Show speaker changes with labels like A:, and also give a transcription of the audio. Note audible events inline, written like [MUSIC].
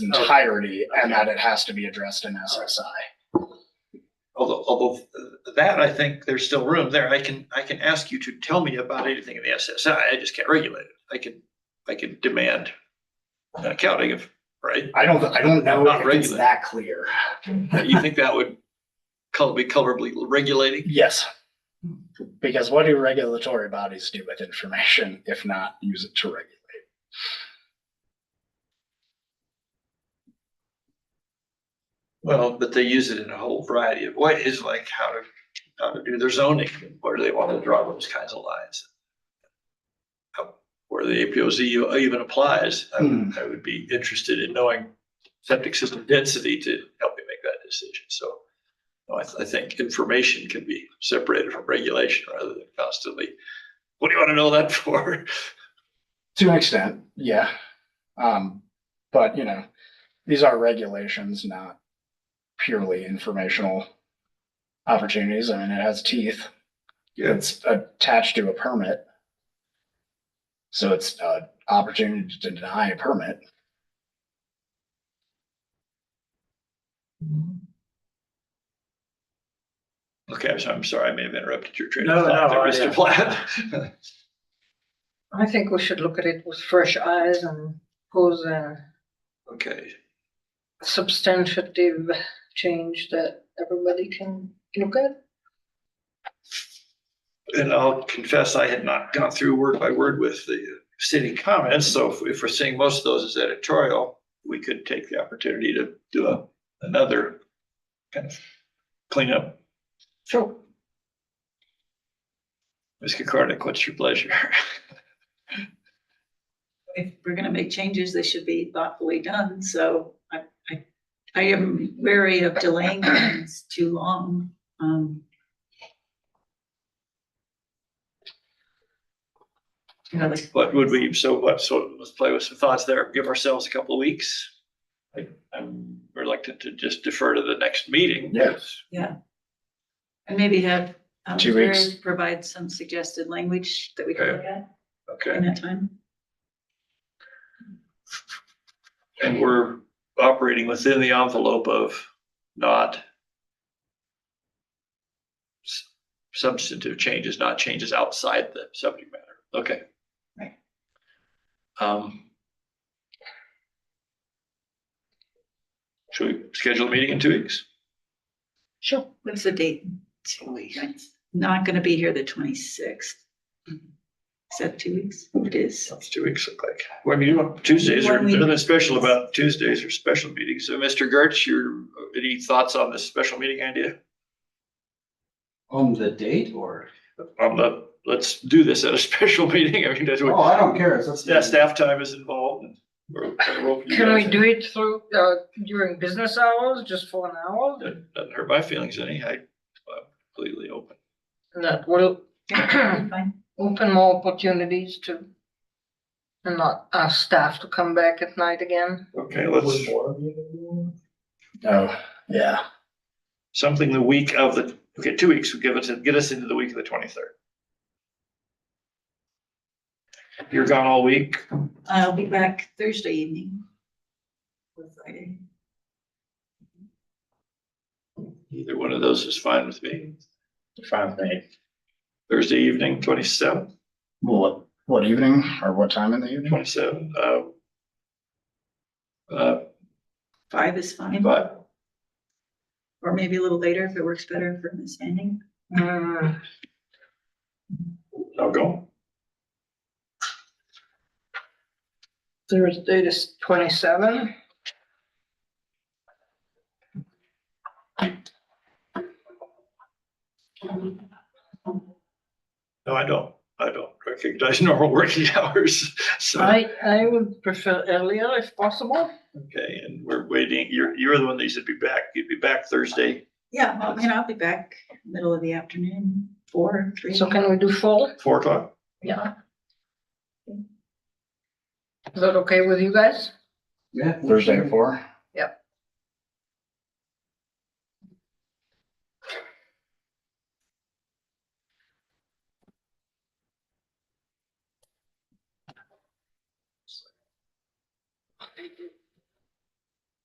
A: Oh. entirety and that it has to be addressed in SSI.
B: Although, although that, I think there's still room there. I can, I can ask you to tell me about anything in the SSI. I just can't regulate it. I can, I can demand an accounting of, right?
A: I don't, I don't know
B: Not
A: if it's
B: regulated.
A: that clear.
B: You think that would col- be colorably regulating?
A: Yes. Because what do regulatory bodies do with information if not use it to regulate?
B: Well, but they use it in a whole variety of ways, like how to, how to do their zoning, where do they want to draw those kinds of lines? How- Where the APOZ uh, even applies, I would, I would be interested in knowing septic system density to help me make that decision, so. no, I, th- I think information can be separated from regulation rather than constantly, what do you want to know that for?
A: To an extent, yeah. Um, but you know, these are regulations, not purely informational opportunities. I mean, it has teeth.
B: Yeah.
A: It's attached to a permit. So it's an opportunity to deny a permit.
B: Mm-hmm. Okay, I'm sorry, I'm sorry, I may have interrupted your train
C: No,
B: of thought
C: no,
B: there,
C: I-
B: Mr. Platt. [LAUGHS]
D: I think we should look at it with fresh eyes and pose a
B: Okay,
D: substantive change that everybody can look at.
B: And I'll confess, I had not gone through word by word with the city comments, so if- if we're seeing most of those as editorial, we could take the opportunity to do a, another kind of cleanup.
D: Sure.
B: Ms. Kokornik, what's your pleasure? [LAUGHS]
E: if we're gonna make changes, they should be thoughtfully done, so I, I, I am wary of delaying things too long. Um, You know, like,
B: What would we, so what, so let's play with some thoughts there, give ourselves a couple of weeks. I- I'm reluctant to just defer to the next meeting.
A: Yeah.
B: because
E: and maybe have. um,
A: Two weeks.
E: Jerry Provide some suggested language that we can look at
B: Okay,
E: in that time.
B: and we're operating within the envelope of not s- substantive changes, not changes outside the subject matter. Okay.
E: Right.
B: Um. Should we schedule a meeting in two weeks?
E: Sure. What's the date? Two weeks. Not gonna be here the twenty-sixth. Is that two weeks? It is.
B: What's two weeks look like? Well, I mean, you want- Tuesdays are,
E: One week.
B: there's nothing special about Tuesdays or special meetings. So Mr. Gertz, your, any thoughts on this special meeting idea?
C: On the date or?
B: On the, Um, let's do this at a [LAUGHS] special meeting. I mean, that's what.
C: Oh, I don't care. That's.
B: Yeah, staff time is involved. and we're- we're open to
D: Can we
B: that.
D: do it through, uh, during business hours, just for an hour?
B: That Doesn't hurt my feelings any. I- I'm completely open.
D: And that will
E: Yeah, fine.
D: open more opportunities to and not ask staff to come back at night again.
B: Okay, let's,
A: Oh, yeah.
B: something the week of the, okay, two weeks would give us, get us into the week of the twenty-third. You're gone all week.
E: I'll be back Thursday evening. Or Friday.
B: Either one of those is fine with me.
A: Fine with me.
B: Thursday evening, twenty-seven,
A: What, what evening or what time in the evening?
B: twenty-seven, uh. Uh,
E: Five is fine,
B: but
E: or maybe a little later if it works better for Miss Manning.
D: Hmm,
B: I'll go.
D: Thursday is twenty-seven.
B: No, I don't. I don't recognize [LAUGHS] normal working hours. So.
D: I, I would prefer earlier if possible.
B: Okay, and we're waiting, you're, you're the one that said be back, you'd be back Thursday,
E: Yeah, well, and I'll be back middle of the afternoon, four, three.
D: So can we do four?
B: four o'clock?
D: Yeah. Is that okay with you guys?
C: Yeah.
A: Thursday at four?